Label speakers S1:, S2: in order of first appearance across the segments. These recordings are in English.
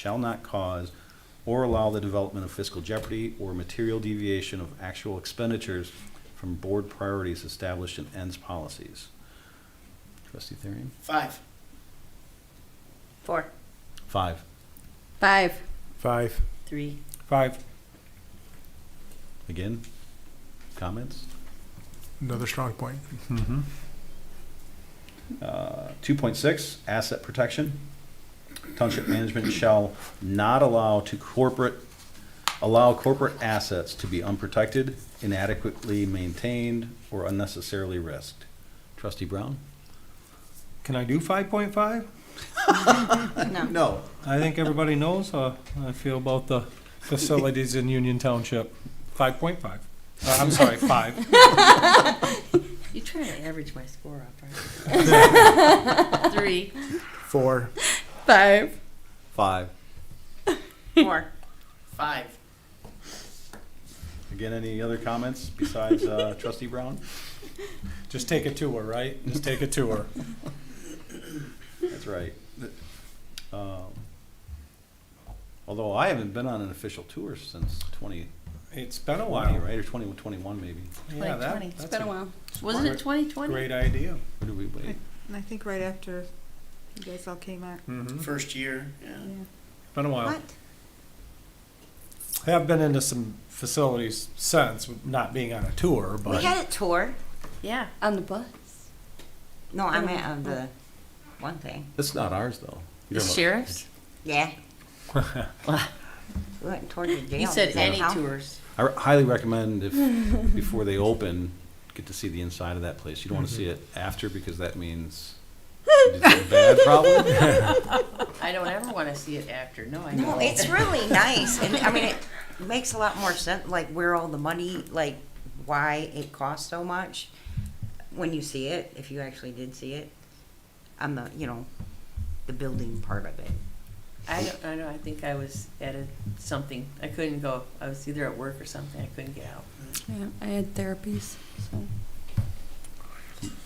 S1: shall not cause or allow the development of fiscal jeopardy or material deviation of actual expenditures from board priorities established in ends policies. Trustee Therian?
S2: Five.
S3: Four.
S1: Five.
S3: Five.
S4: Five.
S3: Three.
S4: Five.
S1: Again, comments?
S4: Another strong point.
S1: Uh, Two point six, asset protection. Township management shall not allow to corporate, allow corporate assets to be unprotected, inadequately maintained, or unnecessarily risked. Trustee Brown?
S5: Can I do five point five?
S3: No.
S1: No.
S5: I think everybody knows how I feel about the facilities in Union Township. Five point five. Uh, I'm sorry, five.
S3: You try to average my score up, right? Three.
S4: Four.
S3: Five.
S1: Five.
S3: Four.
S2: Five.
S1: Again, any other comments besides uh, trustee Brown?
S5: Just take a tour, right? Just take a tour.
S1: That's right. Um, Although I haven't been on an official tour since twenty
S5: It's been a
S1: twenty,
S5: while.
S1: right, or twenty twenty-one maybe.
S5: Yeah, that-
S3: It's
S5: that's
S3: been a while.
S5: Wasn't it
S3: twenty twenty?
S5: Great idea.
S1: Where did we wait?
S6: And I think right after you guys all came out.
S5: Mhm.
S2: First year, yeah.
S6: Yeah.
S5: Been a while. I have been into some facilities since, not being on a tour,
S7: We
S5: but
S7: had a tour
S3: Yeah.
S7: on the bus. No, I meant on the one thing.
S1: That's not ours, though. You're
S3: The
S1: talking about-
S3: sheriff's?
S7: Yeah. we went toward the jail.
S3: You said any
S7: somehow.
S3: tours.
S1: I r- highly recommend if, before they open, get to see the inside of that place. You don't want to see it after because that means you did something bad probably.
S3: I don't ever want to see it after. No, I
S7: No,
S3: don't.
S7: it's really nice, and I mean, it makes a lot more sense. Like where all the money, like why it costs so much when you see it, if you actually did see it, on the you know, the building part of it.
S3: I don't, I don't, I think I was at a, something. I couldn't go. I was either at work or something. I couldn't get out.
S8: Yeah, I had therapies, so.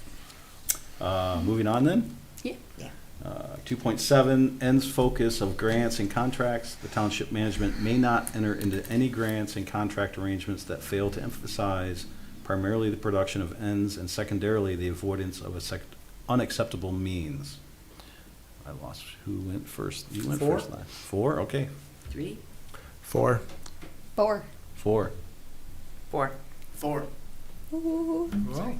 S1: Uh, Moving on then.
S8: Yeah.
S7: Yeah.
S1: Uh, Two point seven, ends focus of grants and contracts. The township management may not enter into any grants and contract arrangements that fail to emphasize primarily the production of ends and secondarily the avoidance of a sec- unacceptable means. I lost, who went first? You went
S5: Four.
S1: first last. Four, okay,
S3: Three.
S4: Four.
S8: Four.
S1: four.
S3: Four.
S2: Four.
S5: Well,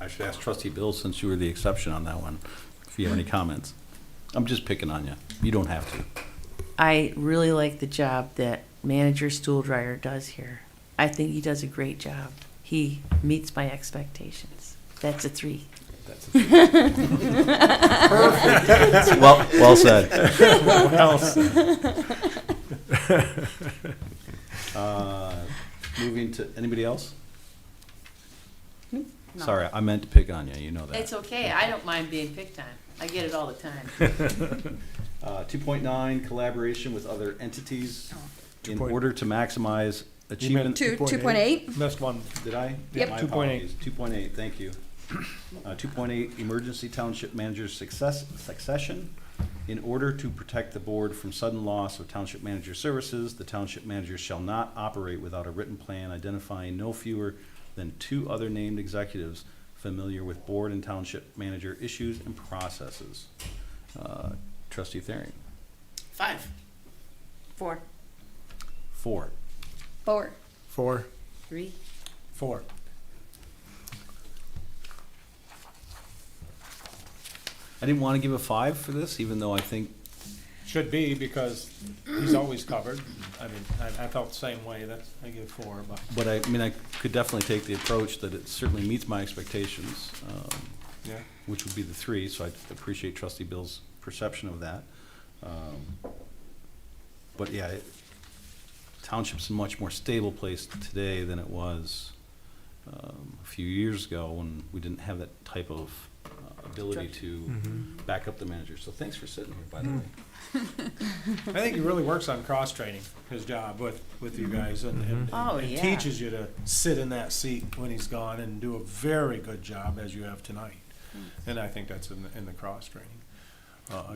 S1: I should ask trustee Bill, since you were the exception on that one, if you have any comments. I'm just picking on you. You don't have to.
S3: I really like the job that manager stool dryer does here. I think he does a great job. He meets my expectations. That's a three.
S1: Well, well said.
S5: what else?
S1: Uh, Moving to, anybody else? Sorry, I meant to pick on you, you know that.
S3: It's okay. I don't mind being picked on. I get it all the time.
S1: Uh, two point nine, collaboration with other entities in
S4: 2.8.
S1: order to maximize achievement.
S8: Two, two
S4: 2.8.
S8: point eight?
S5: Missed one.
S1: Did I?
S8: Yep.
S1: My
S5: 2.8.
S1: apologies. Two point eight, thank you. Uh, two point eight, emergency township manager success, succession. In order to protect the board from sudden loss of township manager services, the township manager shall not operate without a written plan identifying no fewer than two other named executives familiar with board and township manager issues and processes. Uh, Trustee Thering,
S2: Five.
S3: Four.
S1: four.
S8: Four.
S4: Four.
S3: Three.
S5: Four.
S1: I didn't want to give a five for this, even though I think
S5: Should be, because he's always covered. I mean, I, I felt the same way, that's, I give four, but.
S1: But I, I mean, I could definitely take the approach that it certainly meets my expectations, um,
S5: Yeah.
S1: which would be the three, so I appreciate trustee Bill's perception of that. Um, But yeah, it- township's a much more stable place today than it was um, a few years ago when we didn't have that type of uh, ability to back up the manager. So thanks for sitting here, by the way.
S5: I think he really works on cross training, his job with, with you guys and, and.
S3: Oh,
S5: and
S3: yeah.
S5: Teaches you to sit in that seat when he's gone and do a
S3: Mm.
S5: very good job as you have tonight. And I think that's in, the- in the cross training. Uh,